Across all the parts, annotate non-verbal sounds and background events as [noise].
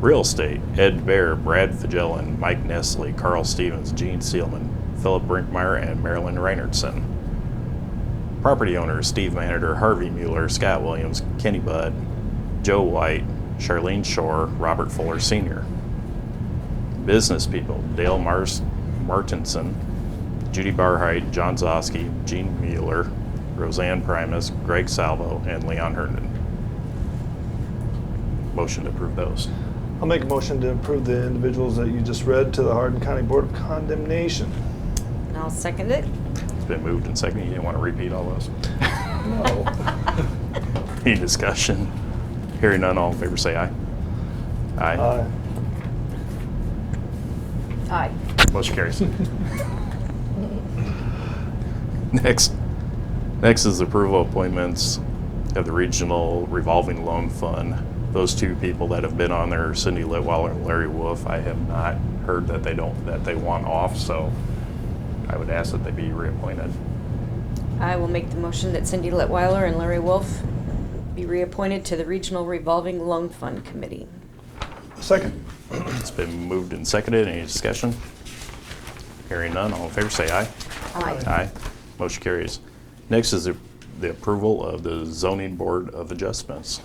Real Estate, Ed Bear, Brad Fagellin, Mike Nestle, Carl Stevens, Gene Seelman, Philip Brinkmeyer, and Marilyn Reinertsen. Property owners Steve Manager, Harvey Mueller, Scott Williams, Kenny Budd, Joe White, Charlene Shore, Robert Fuller Sr. Business people Dale Mars Martinson, Judy Barhide, John Zosky, Gene Mueller, Roseanne Primus, Greg Salvo, and Leon Herndon. Motion to approve those. I'll make a motion to approve the individuals that you just read to the Hardin County Board of Condemnation. And I'll second it. It's been moved and seconded. You didn't want to repeat all those. [laughs] No. Any discussion? Hearing none, all in favor say aye. Aye. Aye. [laughs] Aye. Motion carries. Next, next is approval appointments of the Regional Revolving Loan Fund. Those two people that have been on there, are Cindy Litwiler and Larry Wolf, I have not heard that they don't, that they want off, so I would ask that they be reappointed. I will make the motion that Cindy Litwiler and Larry Wolf be reappointed to the Regional Revolving Loan Fund Committee. Second. It's been moved and seconded. Any discussion? Hearing none, all in favor say aye. Aye. Aye. Motion carries. Next is the the approval of the zoning board of adjustments.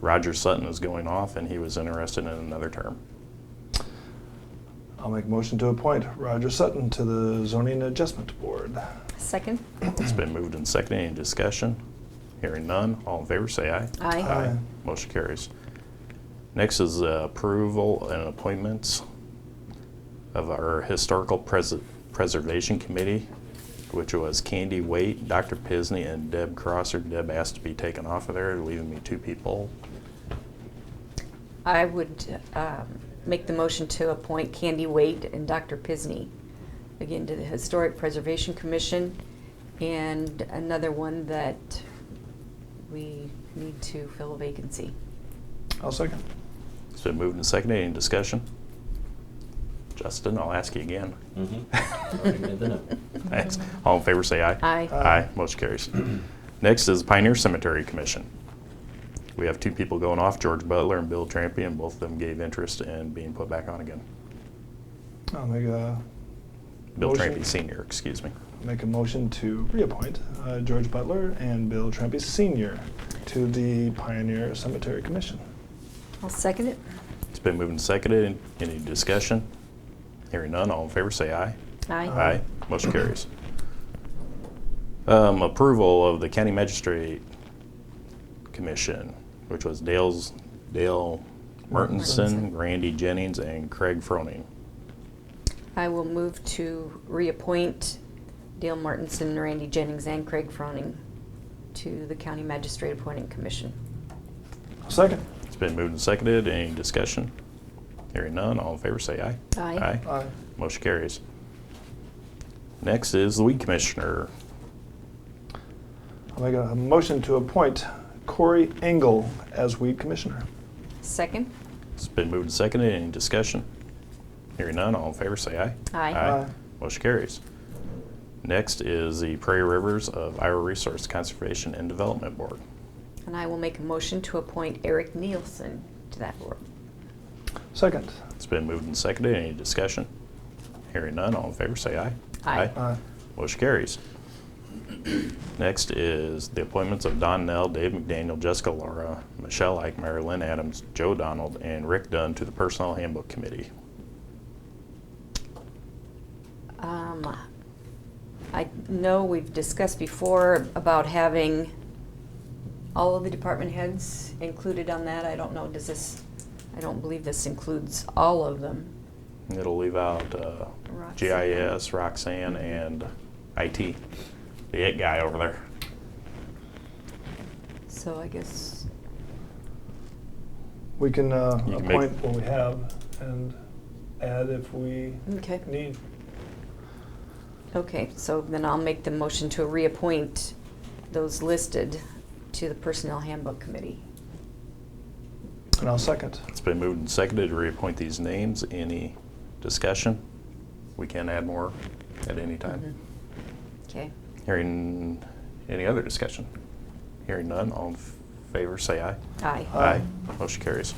Roger Sutton is going off and he was interested in another term. I'll make a motion to appoint Roger Sutton to the Zoning Adjustment Board. Second? It's been moved and seconded. Any discussion? Hearing none, all in favor say aye. Aye. Aye. Motion carries. Next is uh, approval and appointments of our Historical Pres- Preservation Committee, which was Candy Waite, Dr. Pisney, and Deb Crosser. Deb asked to be taken off of there, leaving me two people. I would um, make the motion to appoint Candy Wade and Dr. Pisney, again, to the Historic Preservation Commission, and another one that we need to fill a vacancy. I'll second. It's been moved and seconded. Any discussion? Justin, I'll ask you again. [laughs] Mm-hmm. Thanks. All in favor, say aye. [laughs] Aye. Aye, motion carries. Next is Pioneer Cemetery Commission. We have two people going off, George Butler and Bill Trampy, and both of them gave interest in being put back on again. I'll make a. Bill motion- Trampy Senior, excuse me. Make a motion to reappoint uh, George Butler and Bill Trampy Senior to the Pioneer Cemetery Commission. I'll second it. It's been moved and seconded. Any discussion? Hearing none, all in favor, say aye. Aye. Aye, motion carries. Um, approval of the county magistrate commission, which was Dale's, Dale Mertensen, Randy Jennings, and Craig Froning. I will move to reappoint Dale Martinson, Randy Jennings, and Craig Froning to the County Magistrate Appointing Commission. I'll second. It's been moved and seconded. Any discussion? Hearing none, all in favor say aye. Aye. Aye. Motion carries. Next is the weed commissioner. I'll make a motion to appoint Corey Engel as weed commissioner. Second? It's been moved and seconded. Any discussion? Hearing none, all in favor say aye. Aye. Aye. Motion carries. Next is the Prairie Rivers of Iowa Resource Conservation and Development Board. And I will make a motion to appoint Eric Nielsen to that board. Second. It's been moved and seconded. Any discussion? Hearing none, all in favor say aye. Aye. Aye. Motion carries. Next is the appointments of Don Nell, Dave McDaniel, Jessica Laura, Michelle Ike, Mary Lynn Adams, Joe Donald, and Rick Dunn to the Personnel Handbook Committee. Um, I know we've discussed before about having all of the department heads included on that. I don't know, does this, I don't believe this includes all of them. And It'll leave out uh, Roxanne. GIS, Roxanne, and IT. The it guy over there. So I guess, We can uh, You can make- appoint what we have and add if we okay. need. Okay, so then I'll make the motion to reappoint those listed to the Personnel Handbook Committee. And I'll second. It's been moved and seconded to reappoint these names. Any discussion? We can add more at any time. Okay, Hearing, any other discussion? Hearing none, all in favor, say aye. aye. Aye. Motion carries.